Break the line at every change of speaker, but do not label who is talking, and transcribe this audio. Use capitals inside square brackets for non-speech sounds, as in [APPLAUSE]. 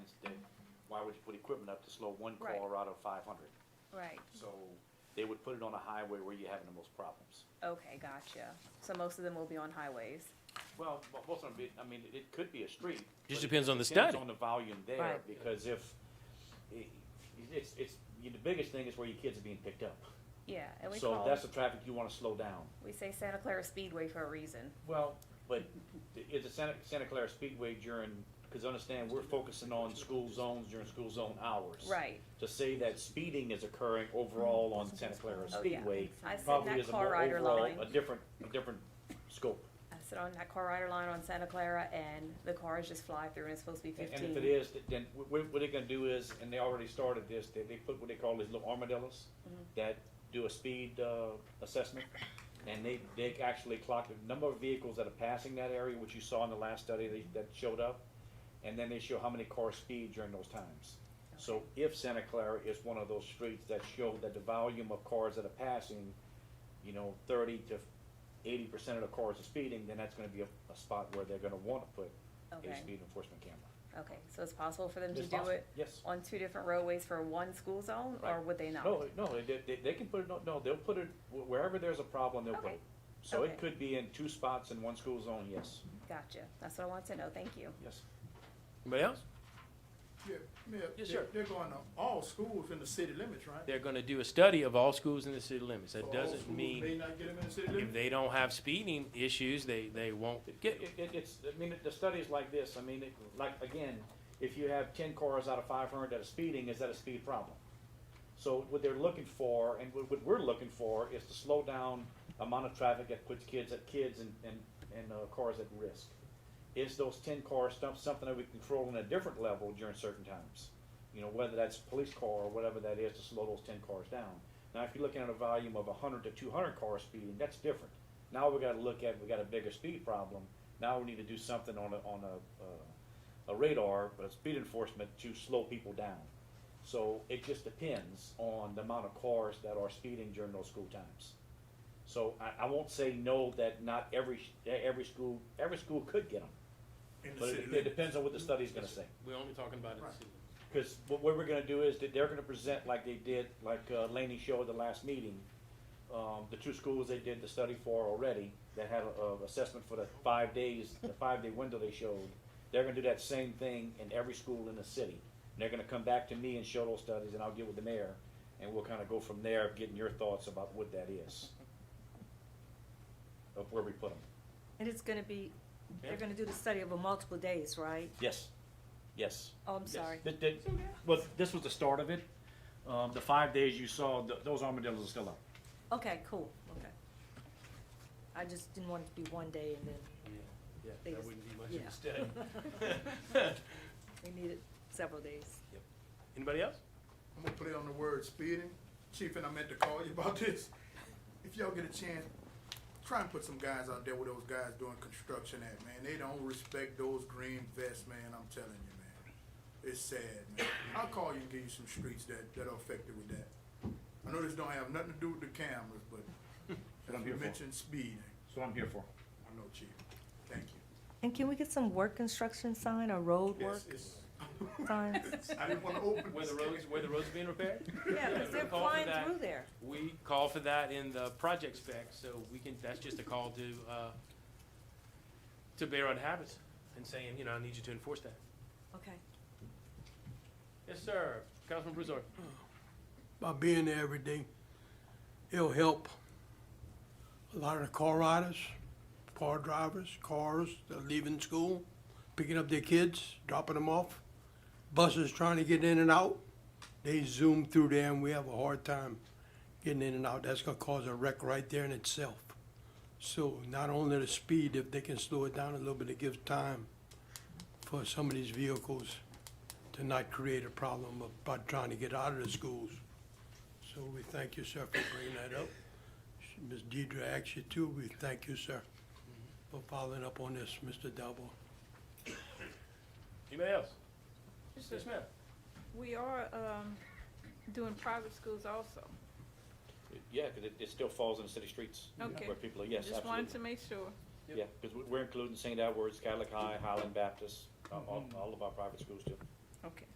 always put equipment up to slow one
Right.
car out of five hundred.
Right,
So they would put it on a highway where you're having the most problems.
okay, gotcha. So most of them will be on highways.
Well, mo- most of them, I mean, it could be a street.
Just
but it
depends on the
Depends
study.
on the volume there,
Right.
because if, i- it's, it's, the biggest thing is where your kids are being picked up.
Yeah, and we
So
call,
that's the traffic you wanna slow down.
we say Santa Clara Speedway for a reason.
Well. But i- it's a Santa, Santa Clara Speedway during, cause understand, we're focusing on school zones during school zone hours.
Right,
To say that speeding is occurring overall on Santa Clara
Oh, yeah.
Speedway
I sit in
probably is
that
a
car
more
rider
overall,
line,
a different, a different scope.
I sit on that car rider line on Santa Clara and the cars just fly through and it's supposed to be
And
fifteen.
and if it is, th- then wh- wh- what they're gonna do is, and they already started this, they, they put what they call these little armadillos
Mm-hmm.
that do a speed, uh, assessment. And they, they actually clock the number of vehicles that are passing that area, which you saw in the last study that, that showed up. And then they show how many cars speed during those times. So if Santa Clara is one of those streets that show that the volume of cars that are passing, you know, thirty to eighty percent of the cars are speeding, then that's gonna be a, a spot where they're gonna wanna put a
Okay.
speed enforcement camera.
Okay, so it's possible for them to
It's
do
possible,
it
Yes.
on two different roadways for one school zone, or
Right.
would they not?
No, no, they- they, they can put it, no, they'll put it, wh- wherever there's a problem, they'll put
Okay.
it. So
Okay.
it could be in two spots in one school zone, yes,
Gotcha, that's what I want to know, thank you.
yes.
Anybody else?
Yeah, Mayor,
Yes,
they're-
sir.
They're going to all schools in the city limits, right?
They're gonna do a study of all schools in the city limits.
So
That
all
doesn't
schools
mean
May not get them in the city
if
limits?
they don't have speeding issues, they, they won't
It,
get
it,
it.
it- it's, I mean, the studies like this, I mean, it, like, again, if you have ten cars out of five hundred that are speeding, is that a speed problem? So what they're looking for, and what, what we're looking for, is to slow down amount of traffic that puts kids, at kids and, and, and, uh, cars at risk. Is those ten cars stuff, something that we control on a different level during certain times? You know, whether that's police car or whatever that is, to slow those ten cars down. Now, if you're looking at a volume of hundred to two hundred cars speeding, that's different. Now we gotta look at, we got a bigger speed problem, now we need to do something on a, on a, uh, a radar, but a speed enforcement to slow people down. So it just depends on the amount of cars that are speeding during those school times. So I, I won't say no that not every, sh- every school, every school could get them,
In the
but
city
it, it
limits.
depends on what the study's gonna say.
We're only talking about
Right.
city.
Because what what we're gonna do is that they're gonna present like they did, like uh, Laney showed at the last meeting, um, the two schools they did the study for already, that had a, a assessment for the five days, the five-day window they showed. They're gonna do that same thing in every school in the city. And they're gonna come back to me and show those studies, and I'll get with the mayor, and we'll kinda go from there, of getting your thoughts about what that is. Of where we put them.
And it's gonna be,
Yeah.
they're gonna do the study over multiple days, right?
Yes, yes.
Oh, I'm sorry.
Th- th- well, this was the start of it. Um, the five days you saw, th- those armadillos are still up.
Okay, cool, okay. I just didn't want it to be one day and then
Yeah,
They that just-
wouldn't be
much of a yeah.
study.
[LAUGHS]
[LAUGHS] we needed several days.
[LAUGHS] Anybody else?
I'm gonna play on the word speeding. Chief, and I meant to call you [LAUGHS] about this. If y'all get a chance, try and put some guys out there where those guys doing construction at, man. They don't respect those green vests, man, I'm telling you, man. It's sad, man. I'll call you and give you some streets that, that are affected with that. I know this don't have nothing to do with the cameras, but
What I'm
as you
here for.
mentioned speeding.
That's what I'm here for.
I know, Chief. Thank you.
And can we get some work construction sign or road work
Yes, it's- [LAUGHS]
signs?
I didn't wanna open.
Where the
this.
roads, where the roads are being repaired?
Yeah, because they're
Call for
flying
that.
through there.
We call for that in the project spec, so we can, that's just a call to, uh, to Bayonne Habits and saying, you know, I need you to enforce that.
Okay.
Yes, sir. Councilman Broussard.
by being there every day, it'll help a lot of the car riders, car drivers, cars that are leaving school, picking up their kids, dropping them off, buses trying to get in and out. They zoom through there and we have a hard time getting in and out. That's gonna cause a wreck right there in itself. So not only the speed, if they can slow it down a little bit, it gives time for some of these vehicles to not create a problem about trying to get out of the schools. So we thank you, sir, for bringing that up. Ms. Deidre, actually, too, we thank you, sir, for following up on this, Mr. Dalbo.
Anybody else? Yes, ma'am.
We are, um, doing private schools also.
Yeah, because it, it still falls in the city streets.
Okay.
Where people are, yes,
Just wanted to
absolutely.
make sure.
to-
Yeah, because um, we're including St. Edward's, Catholic High, Highland Baptist, uh, all, all of our private schools too.
Okay.